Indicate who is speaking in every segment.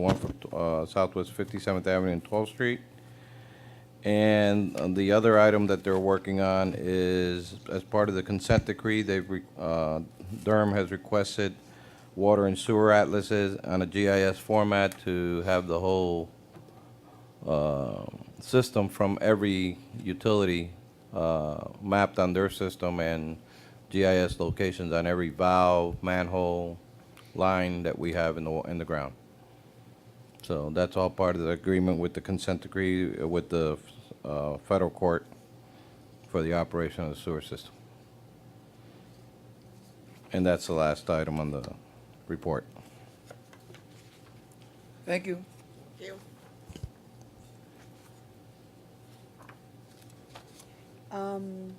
Speaker 1: one for uh, Southwest 57th Avenue and 12th Street. And uh, the other item that they're working on is, as part of the consent decree, they've, re- uh, Durham has requested water and sewer atlases on a GIS format to have the whole uh, system from every utility uh, mapped on their system and GIS locations on every valve, manhole, line that we have in the, wa- in the ground. So that's all part of the agreement with the consent decree uh, with the uh, federal court for the operation of the sewer system. And that's the last item on the report.
Speaker 2: Thank you.
Speaker 3: Um,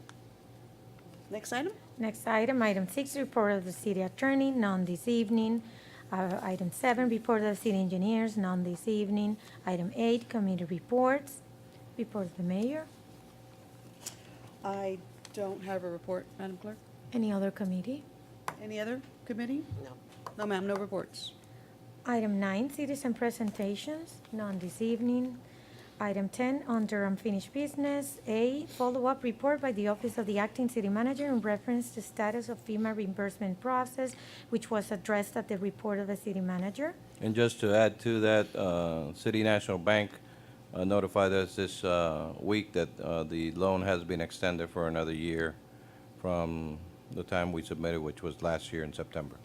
Speaker 3: Next item?
Speaker 4: Next item, item six, report of the city attorney, none this evening. Uh, Item seven, report of the city engineers, none this evening. Item eight, committee reports, report of the mayor.
Speaker 3: I don't have a report, Madam Clerk.
Speaker 4: Any other committee?
Speaker 3: Any other committee? No. No, ma'am, no reports.
Speaker 4: Item nine, citizen presentations, none this evening. Item 10, under unfinished business, A, follow-up report by the Office of the Acting City Manager in reference to status of FEMA reimbursement process, which was addressed at the report of the city manager.
Speaker 1: And just to add to that, uh, City National Bank uh, notified us this uh, week that uh, the loan has been extended for another year from the time we submitted, which was last year in September.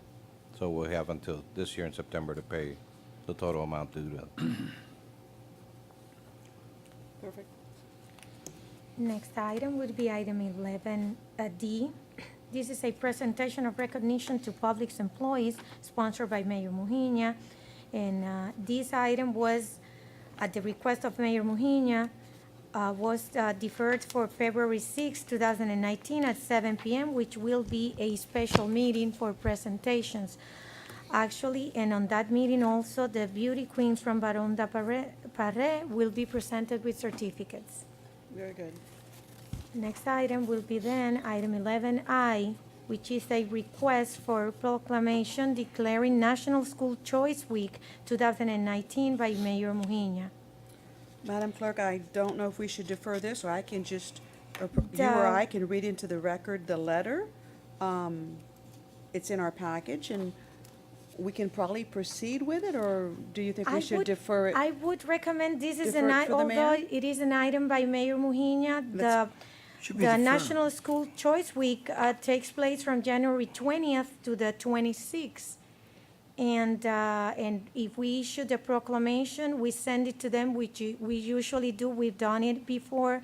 Speaker 1: So we'll have until this year in September to pay the total amount due to
Speaker 3: Perfect.
Speaker 4: Next item would be item 11D. This is a presentation of recognition to public employees sponsored by Mayor Mujina. And uh, this item was, at the request of Mayor Mujina, uh, was uh, deferred for February 6, 2019 at 7 p.m., which will be a special meeting for presentations actually, and on that meeting also, the beauty queens from Baronda Parre- Parre will be presented with certificates.
Speaker 3: Very good.
Speaker 4: Next item will be then item 11I, which is a request for proclamation declaring National School Choice Week 2019 by Mayor Mujina.
Speaker 3: Madam Clerk, I don't know if we should defer this, or I can just, or pr- you or
Speaker 4: Duh.
Speaker 3: I can read into the record the letter. Um, It's in our package, and we can probably proceed with it, or do you think
Speaker 4: I
Speaker 3: we should
Speaker 4: would-
Speaker 3: defer it?
Speaker 4: I would recommend this is
Speaker 3: Defer
Speaker 4: an,
Speaker 3: it
Speaker 4: i-
Speaker 3: for the mayor?
Speaker 4: although it is an item by Mayor Mujina, the,
Speaker 2: Should be
Speaker 4: the
Speaker 2: deferred.
Speaker 4: National School Choice Week uh, takes place from January 20th to the 26th. And, uh, and if we issue the proclamation, we send it to them, which u- we usually do, we've done it before.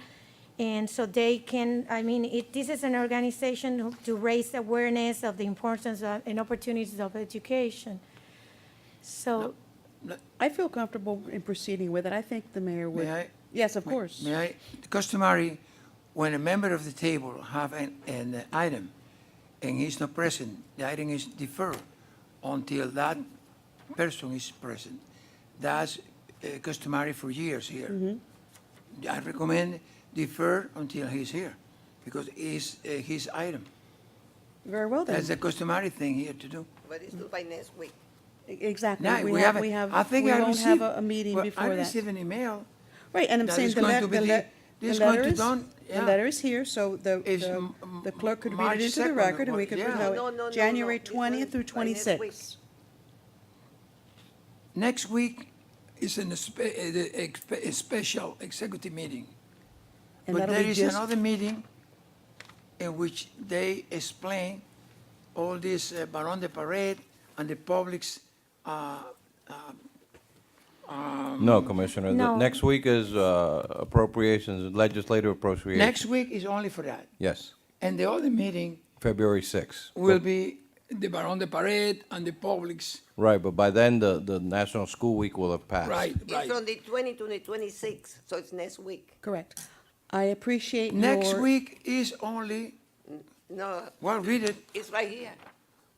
Speaker 4: And so they can, I mean, it, this is an organization who- to raise awareness of the importance of- and opportunities of education. So
Speaker 3: I feel comfortable in proceeding with it. I think the mayor would.
Speaker 2: May I?
Speaker 3: Yes, of course.
Speaker 2: May I, customary, when a member of the table have an, an item and he's not present, the item is deferred until that person is present. That's uh, customary for years here.
Speaker 3: Mm-hmm.
Speaker 2: I recommend defer until he's here, because it's uh, his item.
Speaker 3: Very well then.
Speaker 2: That's the customary thing here to do.
Speaker 5: But it's due by next week.
Speaker 3: E-, Exactly.
Speaker 2: Now,
Speaker 3: We
Speaker 2: we
Speaker 3: have,
Speaker 2: haven't-
Speaker 3: we have,
Speaker 2: I think
Speaker 3: we
Speaker 2: I
Speaker 3: won't have
Speaker 2: received-
Speaker 3: a, a meeting
Speaker 2: well,
Speaker 3: before
Speaker 2: I received
Speaker 3: that.
Speaker 2: an email
Speaker 3: Right, and I'm
Speaker 2: that
Speaker 3: saying
Speaker 2: is
Speaker 3: the
Speaker 2: going
Speaker 3: le-
Speaker 2: to be
Speaker 3: the
Speaker 2: de-
Speaker 3: le- the
Speaker 2: this is going
Speaker 3: letter
Speaker 2: to
Speaker 3: is,
Speaker 2: done,
Speaker 3: the
Speaker 2: yeah.
Speaker 3: letter is here, so the,
Speaker 2: It's
Speaker 3: the-
Speaker 2: m- m-
Speaker 3: the clerk could read
Speaker 2: March
Speaker 3: it into the
Speaker 2: 2nd,
Speaker 3: record and we could
Speaker 2: yeah.
Speaker 3: present
Speaker 2: No,
Speaker 3: it.
Speaker 5: no, no, no,
Speaker 3: January
Speaker 5: no, because
Speaker 3: twentieth through
Speaker 5: by next week.
Speaker 3: twenty-sixth.
Speaker 2: Next week is an espe- uh, the expe- a special executive meeting.
Speaker 3: And
Speaker 2: But
Speaker 3: that'll
Speaker 2: there
Speaker 3: be
Speaker 2: is
Speaker 3: just-
Speaker 2: another meeting in which they explain all this uh, Barón de Parade and the public's, uh,
Speaker 1: that. No, Commissioner, the
Speaker 4: No.
Speaker 1: next week is uh, appropriations, legislative appropriations.
Speaker 2: next week is only for that.
Speaker 1: Yes,
Speaker 2: And the other meeting
Speaker 1: February 6th.
Speaker 2: will be the Barón de Parade and the public's,
Speaker 1: Right, but by then, the, the National School Week will have passed.
Speaker 2: right,
Speaker 5: It's
Speaker 2: right.
Speaker 5: from the twenty to the twenty-sixth, so it's next week.
Speaker 3: Correct. I appreciate your.
Speaker 2: Next week is only,
Speaker 5: No,
Speaker 2: well, read it,
Speaker 5: it's right here.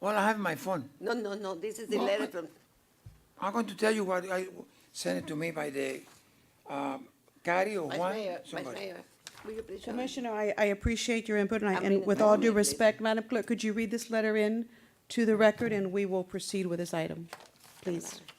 Speaker 2: well, I have my phone.
Speaker 5: No, no, no, this is the
Speaker 2: Well,
Speaker 5: letter
Speaker 2: I-
Speaker 5: from,
Speaker 2: I'm going to tell you what I sent it to me by the um, Gary or
Speaker 5: Vice
Speaker 2: Juan.
Speaker 5: Mayor, Vice
Speaker 2: somebody.
Speaker 5: Mayor. Will you please show me?
Speaker 3: Commissioner, I, I appreciate your input and I,
Speaker 5: I
Speaker 3: and
Speaker 5: mean,
Speaker 3: with
Speaker 5: no,
Speaker 3: all due
Speaker 5: please.
Speaker 3: respect, Madam Clerk, could you read this letter in to the record and we will proceed with this item, please?